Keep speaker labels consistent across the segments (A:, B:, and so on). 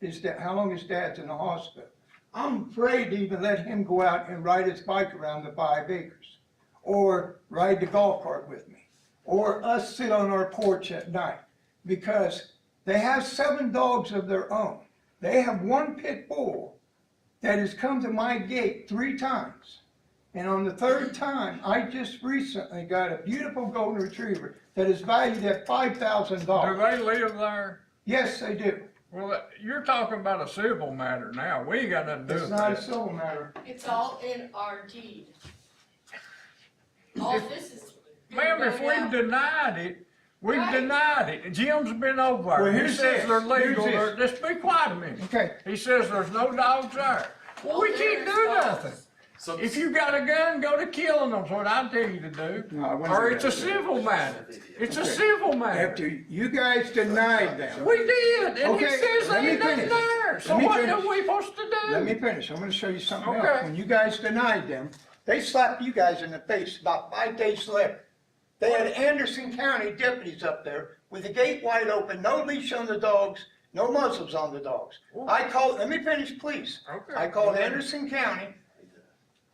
A: his dad, how long his dad's in the hospital. I'm afraid to even let him go out and ride his bike around the five acres, or ride the golf cart with me, or us sit on our porch at night, because they have seven dogs of their own. They have one pit bull that has come to my gate three times. And on the third time, I just recently got a beautiful golden retriever that is valued at five thousand
B: Do
A: dollars.
B: they live there?
A: Yes, they do.
B: Well, you're talking about a civil matter now. We ain't got nothing to do
A: It's
B: with
A: not a
B: that.
A: civil matter.
C: It's all in our deed. All this is.
B: Ma'am, if we've denied it, we've
C: Right.
B: denied it. Jim's been over
A: Well,
B: there. He
A: here's
B: says
A: this.
B: they're legal.
A: Here's
B: They're- Just be quiet a minute.
A: Okay,
B: He says there's no dogs there. Well, we can't do nothing.
D: So
B: If you got a gun, go to killing them's what I tell you to do.
A: No, I wouldn't
B: Or
A: do
B: it's a
A: that.
B: civil matter. It's a
A: Okay.
B: civil matter.
A: after you guys denied them,
B: We did, and he
A: Okay,
B: says
A: let
B: they
A: me
B: ain't nothing
A: finish.
B: there. So
A: Let me
B: what are
A: finish.
B: we supposed to do?
A: let me finish, I'm gonna show you something else.
B: Okay.
A: When you guys denied them, they slapped you guys in the face about five days later. They had Anderson County deputies up there with the gate wide open, no leash on the dogs, no muzzles on the dogs. I called, let me finish, please.
B: Okay.
A: I called Anderson County.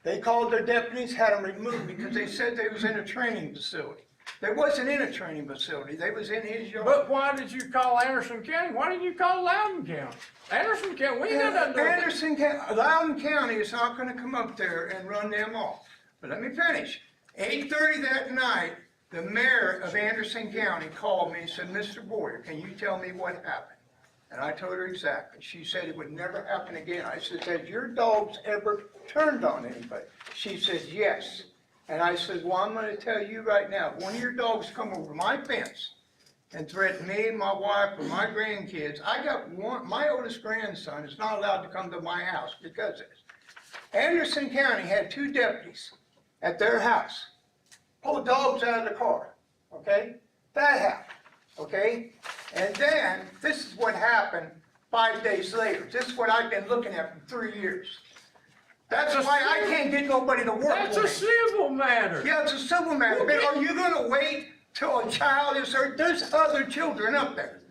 A: They called their deputies, had them removed because they said they was in a training facility. They wasn't in a training facility, they was in his yard.
B: But why did you call Anderson County? Why didn't you call Loudon County? Anderson County, we ain't got nothing to do with it.
A: Uh, Anderson County, Loudoun County is not gonna come up there and run them off. But let me finish. Eight thirty that night, the mayor of Anderson County called me and said, Mr. Boyer, can you tell me what happened? And I told her exactly. She said it would never happen again. I said, has your dogs ever turned on anybody? She says, yes. And I said, well, I'm gonna tell you right now, if one of your dogs come over my fence and threaten me, my wife, or my grandkids. I got one, my oldest grandson is not allowed to come to my house because of this. Anderson County had two deputies at their house, pulled dogs out of the car, okay? That happened, okay? And then, this is what happened five days later. This is what I've been looking at for three years. That's
B: That's a
A: why I can't get nobody to work
B: That's
A: for
B: a
A: me.
B: civil matter.
A: Yeah, it's a civil matter, but are you gonna wait till a child is hurt? There's other children up there.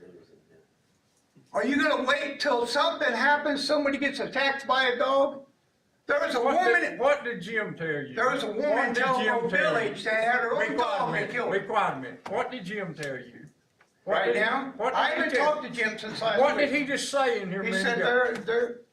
A: Are you gonna wait till something happens, somebody gets attacked by a dog? There was a
B: What
A: woman,
B: did, what did Jim tell you?
A: there was a
B: What
A: woman in
B: did Jim
A: Telephone
B: tell you?
A: Village that had her
B: Be
A: own
B: quiet a
A: dog and
B: minute.
A: killed
B: Be
A: her.
B: quiet a minute. What did Jim tell you? What
A: Right
B: did-
A: now,
B: what did
A: I
B: he
A: haven't
B: tell-
A: talked to Jim since last week.
B: What did he just say in here a
A: He
B: minute
A: said
B: ago?
A: there,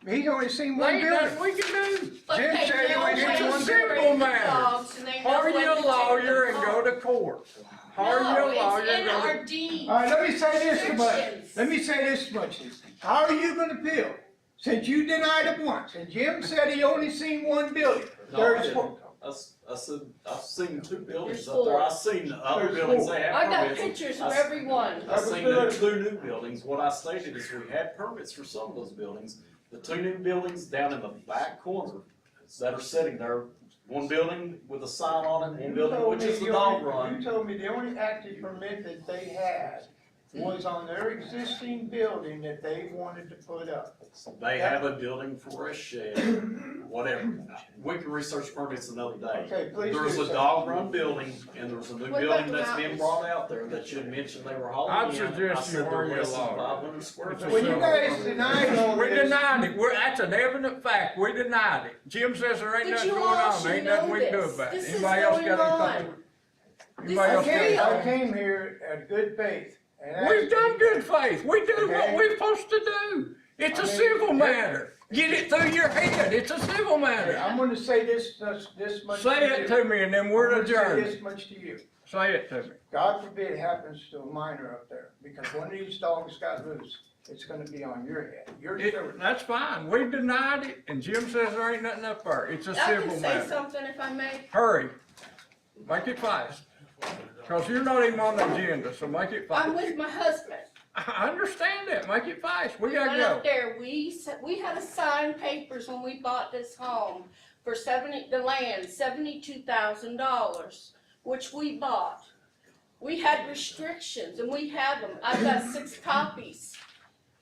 A: there, he's only seen
B: There
A: one
B: ain't
A: building.
B: nothing we can do.
A: Jim said he went into one
B: Simple matter. Hire you a lawyer and go to court. Hire you a lawyer and
C: No,
B: go
C: it's in
B: to.
C: our deed.
A: All right, let me say this much,
C: Restrictions.
A: let me say this much, how are you gonna feel? Since you denied it once, and Jim said he only seen one building,
D: No, I
A: there's,
D: didn't.
A: four-
D: I, s- I seen, I've seen two buildings
C: There's
D: up there,
C: four.
D: I've seen the other
A: There's
D: buildings
A: four.
D: they have
C: I got
D: permits.
C: pictures of
D: I s-
C: everyone.
D: I've
A: was
D: seen
A: good.
D: the two new buildings, what I stated is we had permits for some of those buildings. The two new buildings down in the back corner that are sitting there, one building with a sign on it, one building which is the dog
A: You
D: run.
A: told me the only active permit that they had was on their existing building that they wanted to put up.
D: They have a building for a shed, whatever. We can research permits another day.
A: Okay, please
D: There's
A: do
D: a
A: so.
D: dog run building, and there's a
C: What
D: new
C: about
D: building
C: the
D: that's being
C: mountains?
D: brought out there that you mentioned they were hauling in.
B: I'd suggest
D: I
B: you
D: said they're
B: hire a
D: less than
B: lawyer.
D: 500 square
B: It's a
D: feet.
A: Well, you guys denied all
B: We
A: this.
B: denied it. We're, that's an evident fact. We denied it. Jim says there ain't
C: But
B: nothing
C: you
B: going
C: all
B: on.
C: should
B: There ain't nothing we can do
C: know this.
B: about it.
C: This is
B: Anybody else
C: going
B: got anything?
C: This
B: Anybody
C: is
B: else
A: I
B: got
A: came,
C: real.
A: I
B: anything?
A: came here at good faith and asked.
B: We've done good faith. We do
A: Okay.
B: what we're supposed to do. It's
A: I
B: a
A: mean,
B: civil
A: yeah.
B: matter. Get it through your head. It's a civil
A: Hey,
B: matter.
A: I'm gonna say this, this, this much.
B: Say it to me and then we're
A: I'm gonna say
B: adjourned.
A: this much to you.
B: Say it to me.
A: God forbid it happens to a minor up there, because one of these dogs got loose, it's gonna be on your head, your
B: It,
A: shoulders.
B: that's fine. We denied it and Jim says there ain't nothing up there. It's a
C: I can
B: civil
C: say
B: matter.
C: something if I may.
B: Hurry. Make it fast. Cause you're not even on the agenda, so make it
C: I'm
B: fast.
C: with my husband.
B: I understand that. Make it fast. We
C: We went
B: gotta go.
C: up there, we, s- we had to sign papers when we bought this home for seventy, the land, seventy-two thousand dollars, which we bought. We had restrictions and we have them. I've got six copies.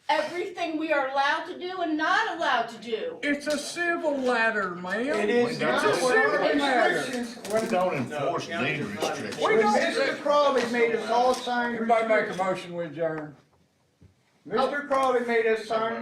C: Everything we are allowed to do and not allowed to do.
B: It's a civil matter, ma'am.
A: It is
B: It's
A: not
B: a
A: what our
B: civil matter.
A: restrictions, when
E: don't
D: No,
E: enforce
D: county
E: deed
D: does not enforce
E: restrictions.
B: We
A: when
B: don't-
A: Mr. Crowley made us all sign
B: Everybody make a
A: restrictions.
B: motion, we adjourn.
A: Mr. Crowley made us sign